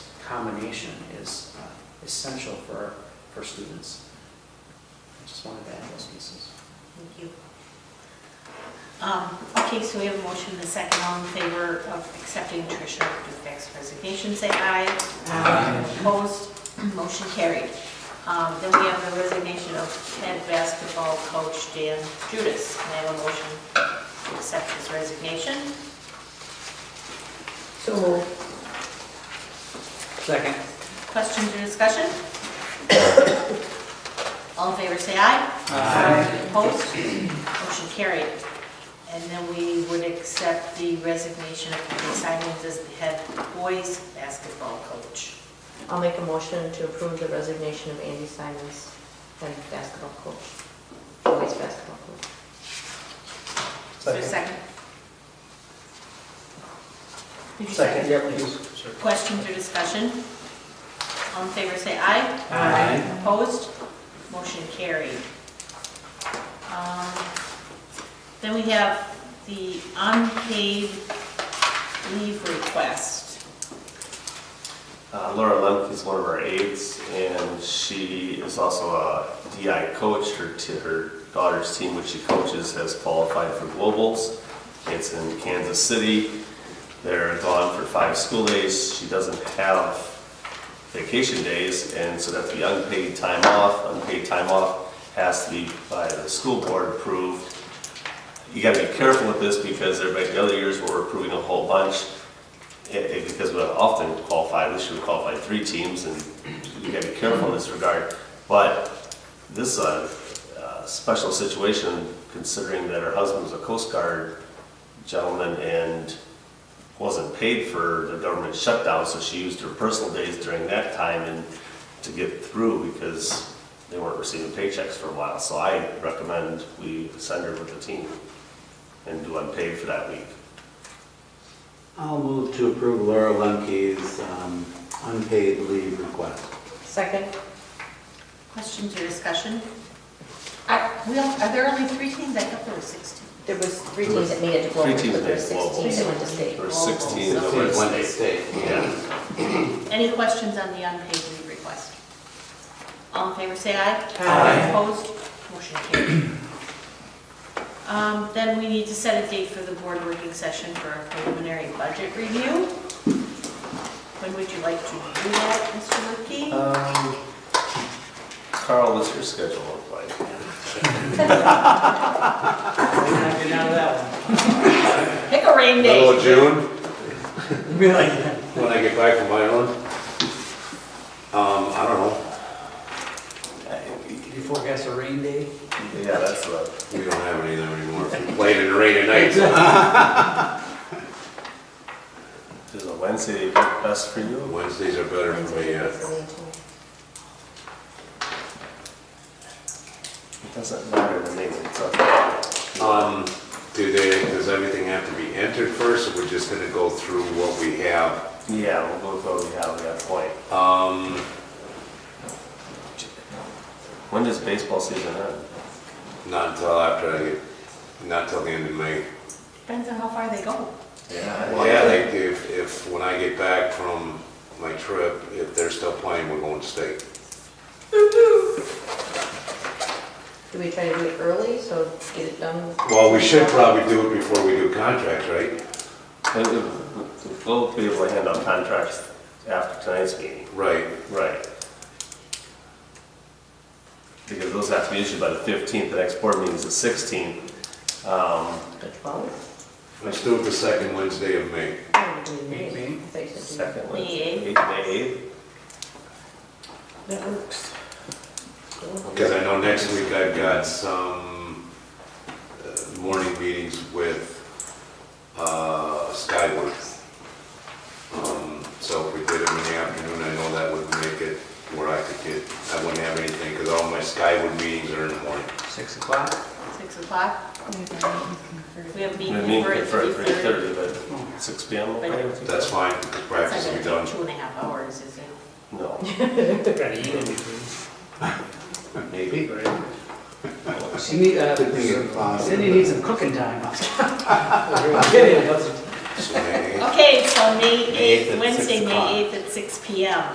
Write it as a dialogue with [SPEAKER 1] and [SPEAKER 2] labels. [SPEAKER 1] combination is uh, essential for, for students. I just wanted to add those pieces.
[SPEAKER 2] Thank you. Um, Okay, so we have a motion and a second. All in favor of accepting Tricia Dufek's resignation, say aye.
[SPEAKER 3] Aye.
[SPEAKER 2] Opposed, motion carried. Um, Then we have the resignation of head basketball coach Dan Judas. Can I have a motion to accept his resignation?
[SPEAKER 3] So moved.
[SPEAKER 1] Second.
[SPEAKER 2] Questions or discussion? All in favor, say aye. Opposed? Motion carried. And then we would accept the resignation of Kelly Simons as the head boys basketball coach.
[SPEAKER 3] I'll make a motion to approve the resignation of Andy Simons, head basketball coach, boys basketball coach.
[SPEAKER 2] Is there a second? Did you
[SPEAKER 4] Second, yeah, please.
[SPEAKER 2] Questions or discussion? All in favor, say aye.
[SPEAKER 4] Aye.
[SPEAKER 2] Opposed? Motion carried. Um, Then we have the unpaid leave request.
[SPEAKER 5] Uh, Laura Lemke is one of our aides, and she is also a DI coach. Her, t- her daughter's team, which she coaches, has qualified for globals. It's in Kansas City. They're gone for five school days. She doesn't have vacation days, and so that's the unpaid time off. Unpaid time off has to be by the school board approved you gotta be careful with this because everybody, the other years we're approving a whole bunch. eh, eh, because we often qualified, this year we qualified three teams and you gotta be careful in this regard. But this is a, uh special situation considering that her husband was a Coast Guard gentleman and wasn't paid for the government shutdown, so she used her personal days during that time and to get through because they weren't receiving paychecks for a while. So I recommend we send her with the team and do unpaid for that week.
[SPEAKER 4] I'll move to approve Laura Lemke's um, unpaid leave request.
[SPEAKER 3] Second?
[SPEAKER 2] Questions or discussion? I- we don't- Are there only three teams? I thought there were six teams.
[SPEAKER 3] There was three teams that made it to global,
[SPEAKER 5] Three teams
[SPEAKER 3] but there were
[SPEAKER 5] made
[SPEAKER 3] six
[SPEAKER 5] global.
[SPEAKER 3] teams that went to state. Oh,
[SPEAKER 5] Oh, There were 16 that went
[SPEAKER 4] Wednesday
[SPEAKER 5] to state.
[SPEAKER 4] state.
[SPEAKER 5] Yeah.
[SPEAKER 2] Any questions on the unpaid leave request? All in favor, say aye.
[SPEAKER 4] Aye.
[SPEAKER 2] Opposed? Motion carried. Um, Then we need to set a date for the board working session for a preliminary budget review. When would you like to do that, Mr. Lipke?
[SPEAKER 5] Um, Carl, what's your schedule look like?
[SPEAKER 2] Pick a rain day.
[SPEAKER 4] June? When I get back from Ireland? Um, I don't know,
[SPEAKER 6] Did you forecast a rain day?
[SPEAKER 5] Yeah, that's what.
[SPEAKER 4] we don't have any of them anymore, If we played in the rain at night,
[SPEAKER 5] Does a Wednesday work best for you?
[SPEAKER 4] Wednesdays are better for me, yeah.
[SPEAKER 5] It doesn't matter to me. It's up.
[SPEAKER 4] Um, do they, does everything have to be entered first, or we're just gonna go through what we have?
[SPEAKER 5] Yeah, we'll go with what we have at that point.
[SPEAKER 4] Um,
[SPEAKER 5] When does baseball season end?
[SPEAKER 4] not until after I get, not till the end of May.
[SPEAKER 2] Depends on how far they go.
[SPEAKER 4] Well, yeah, they, if, if, when I get back from my trip, if they're still playing, we're going to state.
[SPEAKER 3] Do we try to do it early, so get it done?
[SPEAKER 4] Well, we should probably do it before we do contracts, right?
[SPEAKER 5] Uh, uh, We'll be able to hand out contracts after tonight's meeting.
[SPEAKER 4] Right.
[SPEAKER 5] Right. Because those have to be issued by the 15th, the next board meeting is the 16th. Um,
[SPEAKER 3] The twelfth?
[SPEAKER 4] Let's do it the second Wednesday of May.
[SPEAKER 3] I don't know, do it
[SPEAKER 6] Maybe.
[SPEAKER 3] I thought you said do-
[SPEAKER 2] May
[SPEAKER 5] Second Wednesday,
[SPEAKER 2] eighth.
[SPEAKER 5] eighth, May 8th.
[SPEAKER 1] That works.
[SPEAKER 4] Because I know next week I've got some uh, morning meetings with uh, Skyworth. Um, So if we did them in the afternoon, I know that would make it where I could get, I wouldn't have anything, because all my Skywood meetings are in the morning.
[SPEAKER 6] Six o'clock?
[SPEAKER 2] Six o'clock? We have a
[SPEAKER 5] I
[SPEAKER 2] meeting
[SPEAKER 5] mean,
[SPEAKER 2] for
[SPEAKER 5] for
[SPEAKER 2] 3:30.
[SPEAKER 5] 3:30, but 6 PM, okay with you?
[SPEAKER 4] That's fine, the practice
[SPEAKER 2] It's
[SPEAKER 4] will be
[SPEAKER 2] not going
[SPEAKER 4] done.
[SPEAKER 2] to take two and a half hours, is it?
[SPEAKER 5] No.
[SPEAKER 6] Gotta eat in between.
[SPEAKER 4] Maybe.
[SPEAKER 6] She need, uh,
[SPEAKER 7] Good thing it's possible.
[SPEAKER 6] Cindy needs some cooking time. Get in, let's-
[SPEAKER 8] So May eighth.
[SPEAKER 2] Okay, so May
[SPEAKER 7] May eighth
[SPEAKER 2] 8th,
[SPEAKER 7] at six
[SPEAKER 2] Wednesday,
[SPEAKER 7] o'clock.
[SPEAKER 2] May 8th at six PM.